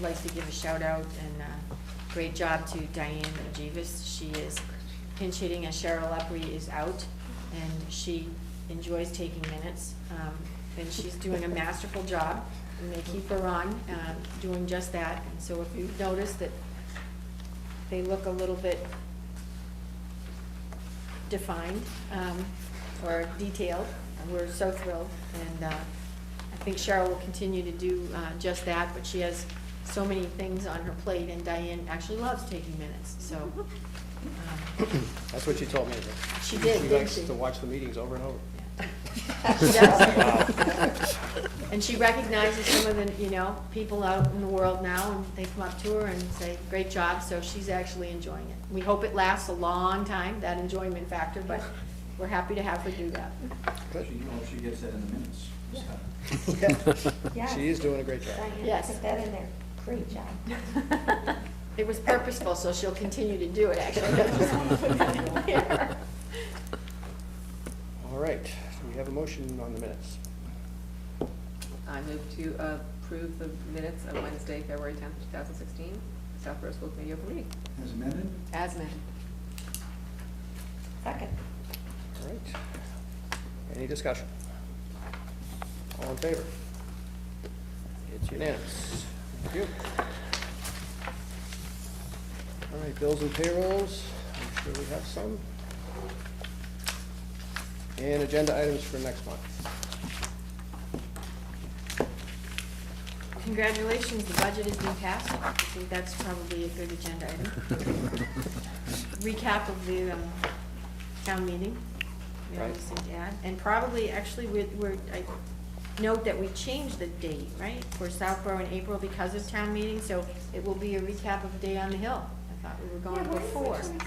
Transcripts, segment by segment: like to give a shout out and uh great job to Diane Jeeves. She is pinch hitting as Cheryl Lepre is out, and she enjoys taking minutes. Um, And she's doing a masterful job, and they keep her on, um, doing just that. And so if you notice that they look a little bit defined, um, or detailed, and we're so thrilled. And, uh, I think Cheryl will continue to do, uh, just that, but she has so many things on her plate, and Diane actually loves taking minutes, so. um, That's what she told me. She did, didn't likes she? to watch the meetings over and over. She does. um, And she recognizes some of the, you know, people out in the world now, and they come up to her and say, great job, so she's actually enjoying it. We hope it lasts a long time, that enjoyment factor, but we're happy to have her do that. Good. She, oh, she gets that in the minutes. Yeah. She is doing a great job. Diane, Yes. put that in there. Great job. It was purposeful, so she'll continue to do it, actually. All right, so we have a motion on the minutes. I move to approve the minutes of Wednesday, February tenth, two thousand sixteen, Southborough School Committee Open Meeting. As amended? As amended. Second. All right. Any discussion? All in favor? It's unanimous. Thank you. All right, bills and payrolls, I'm sure we have some. And agenda items for next month. Congratulations, the budget has been passed. I think that's probably a good agenda item. Recap of the um, town meeting, we always Right. seem to add. And probably, actually, we're, we're- I note that we changed the date, right? For Southborough in April because of town meeting, so it will be a recap of Day on the Hill. I thought we were going before. I didn't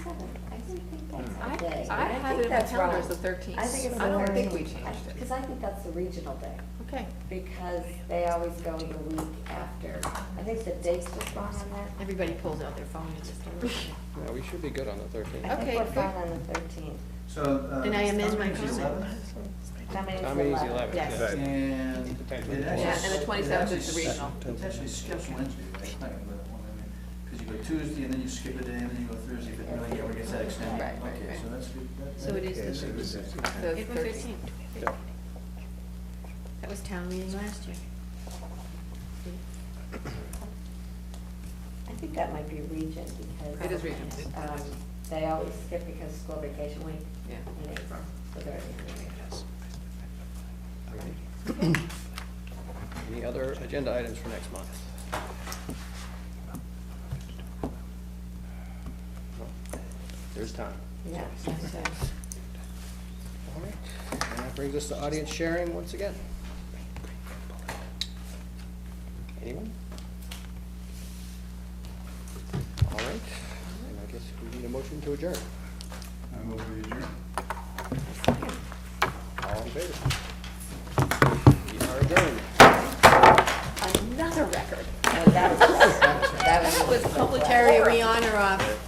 think Hmm. I, that's the day. I had it in my that's calendar wrong. as the thirteenth. I think it's the I don't think we thirteenth. changed Because it. Oh, I think that's the regional day, Okay, because they always go the week after. I think the date's just wrong on that. everybody pulls out their phone and just. Yeah, we should be good on the I thirteenth. Okay, think we're good. wrong on the thirteenth. So, uh. Then I amend my Dominique's comment. 11th, Dominique's How many is eleven. eleven? Yes. Yeah. And. Potentially. it Yeah, actually- and the it 27th is actually the sk- regional. It actually skips Wednesday, right? It's not gonna be that one, I mean, Cause you go Tuesday and then you skip a day and then you go Thursday, but really never gets that extended. Right, right, Okay, right. so that's good. That- So that- it is the Okay, so it's- So it's April 13th. thirteenth. Yeah. That was town meeting last year. I think that might be region, because. It is region. Um, they always skip because of school vacation week Yeah. in April, so they're in April. All right. Any other agenda items for next month? No? There's time. Yeah. All right, and that brings us to audience sharing once again. Anyone? All right, and I guess we need a motion to adjourn. I'm over adjourned. All in favor? We are adjourned. Now, that was- Was public area we on or off?